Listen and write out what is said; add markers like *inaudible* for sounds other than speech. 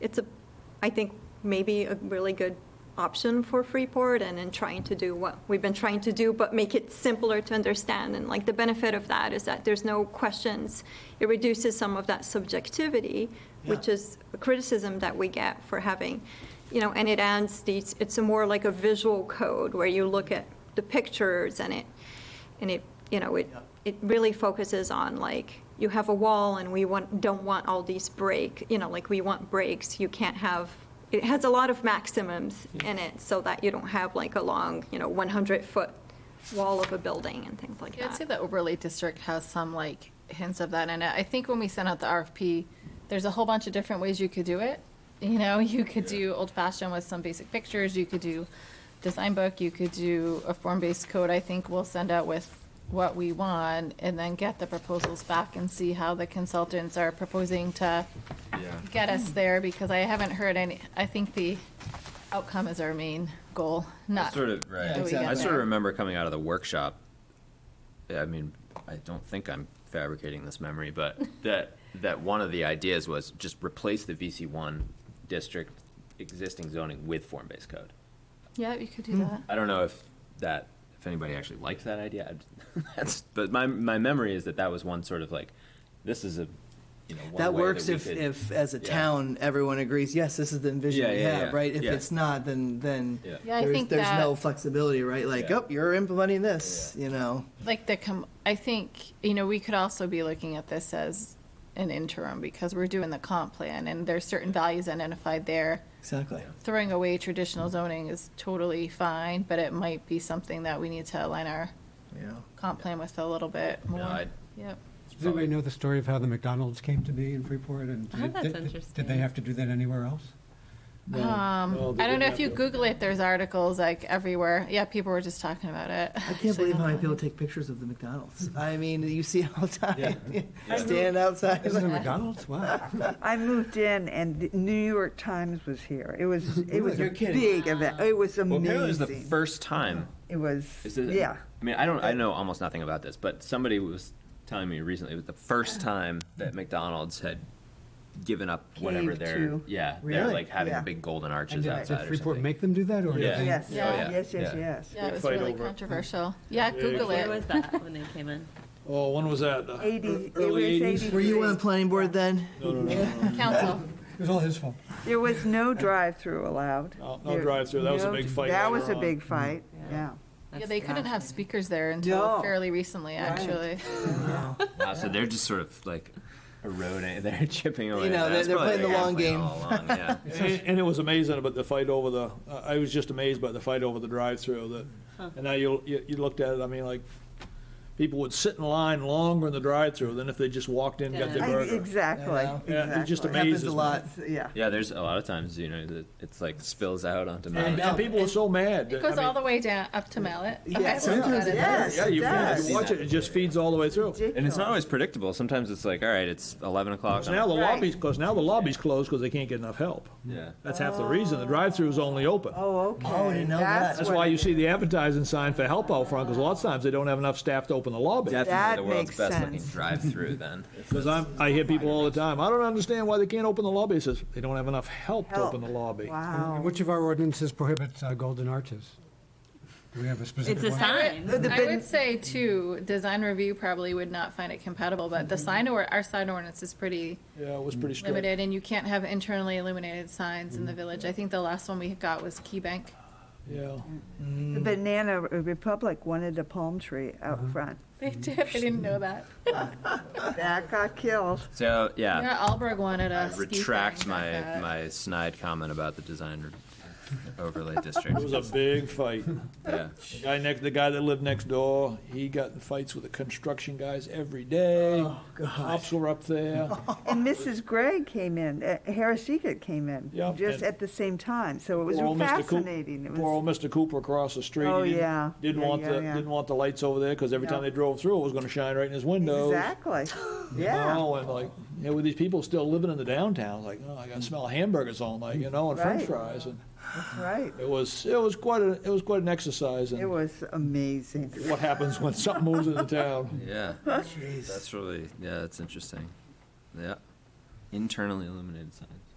it's a, I think, maybe a really good option for Freeport and in trying to do what we've been trying to do, but make it simpler to understand. And like the benefit of that is that there's no questions. It reduces some of that subjectivity, which Yeah. is a criticism that we get for having, you know, and it adds these, it's a more like a visual code where you look at the pictures and it, and it, you know, it, Yeah. it really focuses on like, you have a wall and we want, don't want all these break, you know, like we want breaks, you can't have, it has a lot of maximums in it so that you don't have like a long, you know, 100-foot wall of a building and things like Yeah, I'd say that. the overlay district has some like hints of that in it. I think when we sent out the RFP, there's a whole bunch of different ways you could do it. *laughs* You know, you could do old fashioned with some basic pictures, you could do design book, you could do a form-based code. I think we'll send out with what we want and then get the proposals back and see how the consultants are proposing to Yeah. get us there because I haven't heard any, I think the outcome is our main goal, not. Sort of, that we right. get I sort there. of remember coming out of the workshop, yeah, I mean, I don't think I'm fabricating this *laughs* memory, but that, that one of the ideas was just replace the VC one district existing zoning with form-based code. Yeah, you could do that. I don't know if that, if anybody actually liked that idea, *laughs* I'd- that's, but my, my memory is that that was one sort of like, this is a, you know, one way That works we if, could- if, as a yeah. town, everyone agrees, yes, this is the vision Yeah, we yeah, have, yeah, right? If yeah. it's not, then, then Yeah. Yeah, I there's, think there's no that- flexibility, right? Like, Yeah. oh, you're implementing this, Yeah. you know? like the com- I think you know we could also be looking at this as an interim because we're doing the comp plan and there's certain values identified there. Exactly. Throwing away traditional zoning is totally fine, but it might be something that we need to align our Yeah. comp plan with a little bit more. I'd- Yep. it's Does anybody probably- know the story of how the McDonald's came to be in Freeport? and Oh, did- that's did- interesting. Did Uh, they have to do that anywhere else? Um, I don't know if you Google it. There's articles like everywhere. Yeah, people were just talking about it. I can't believe how many people take pictures of the *laughs* McDonald's. I mean, you see it all the *laughs* Yeah. time. Stand outside. This is a McDonald's? *laughs* Wow. I moved in and the New York Times was here. *laughs* It was, it was a You're kidding. big event. It was Well, apparently it was the amazing. first time It was, Is it, yeah. I mean, I don't. I know almost nothing about this, but somebody was telling me recently it was the first time that McDonald's had given up whatever Caved their to- yeah they're Really? like having Yeah. the big golden And arches Did outside did or Freeport something. make them do that, or? did Yeah. they- Yes, oh, Yeah. yes, yes, Yeah. yes. Yeah, it was Fight really over it. controversial. Yeah, Yeah, Google yeah. Where was it. that when they came in? Oh, when was that? The Eighty, ear- it was Early eighties? eighty-three. Were you on the planning board then? No, no, no, no, no. Council. It was all his fault. There was no drive-through allowed. No, no There- drive-through. That was no- a big fight That later was a on. big fight, Yeah. yeah. Yeah, they couldn't have speakers. speakers there until No. fairly recently, actually. Wow, so they're just sort of like eroding. *laughs* They're chipping away. You know, at they're- that. That's they're probably playing the what long they were playing *laughs* all along, yeah. And, and it was amazing about the fight over the, I I was just amazed by the fight over the drive-through that, and now you, you, you looked at it, I mean, like, people would sit in line longer in the drive-through than if they just walked in, and got their I- burger. Exactly, Yeah, exactly. yeah, it just Happens amazes a me. lot. Yeah. yeah, there's a lot of times you know that it's like spills out onto And, mountains. and people were so mad. It that- goes I all mean, the way down, up to Mallet. Yeah, Okay, so sometimes that it is- Yes, Yeah, it you feel- does. you watch it, it just feeds all the way through. And it's not always predictable. Sometimes it's like, all right, it's eleven o'clock. So now the Right. lobbies, because now the lobby's closed because they can't get enough help. yeah. That's half the reason. The drive-through is only open. Oh, okay. Oh, I didn't know that. That's what why it you is. see the advertising sign for help out front, because lots of times they don't have enough staff to open the lobby. Definitely That the world's makes best looking sense. drive-through. *laughs* Then Because I'm, I hear people all the time, I don't understand why they can't open the lobby. It says, they don't have enough help to open the Help. lobby. Oh. Wow. Which of our ordinances prohibits uh, golden arches? Do we have a specific It's one? a sign. The- the I bin- would say too, design review probably would not find it compatible, but the sign or, our sign ordinance is pretty Yeah, it was pretty strict. limited and you can't have internally illuminated signs in the village. I think the last one we got was Key Bank. Yeah. The Banana Republic wanted a palm tree Uh-huh. out front. *laughs* They did, I didn't know that. That got killed. so Yeah, Alberg wanted I a ski thing retract back my, up. my snide comment about the design overlay district. *laughs* It was a big fight. Yeah. The guy next, the guy that lived next door, he got in fights with the construction guys every day. Oh, Cops were up there. And Mrs. Gregg came in, uh, Harris Eagat came in, Yeah, just and- at the same time, so *laughs* it was Poor old Mr. Coop- fascinating. It Poor was, old Mr. Cooper across the street. Oh, he didn't- yeah. Didn't Yeah, want yeah, the, yeah. didn't want the lights over there, because every No. time they drove through, it was gonna shine right in his windows. *laughs* exactly, yeah. Oh, and like, you know, with these people still living in the downtown, like, oh, I gotta smell hamburgers all night, you know, and french Right. fries, and Right, it was, it was quite a, it was quite an exercise it in was amazing. what happens when something moves into town. Yeah. Jeez. That's really, yeah, that's interesting. Yeah. Internally illuminated signs.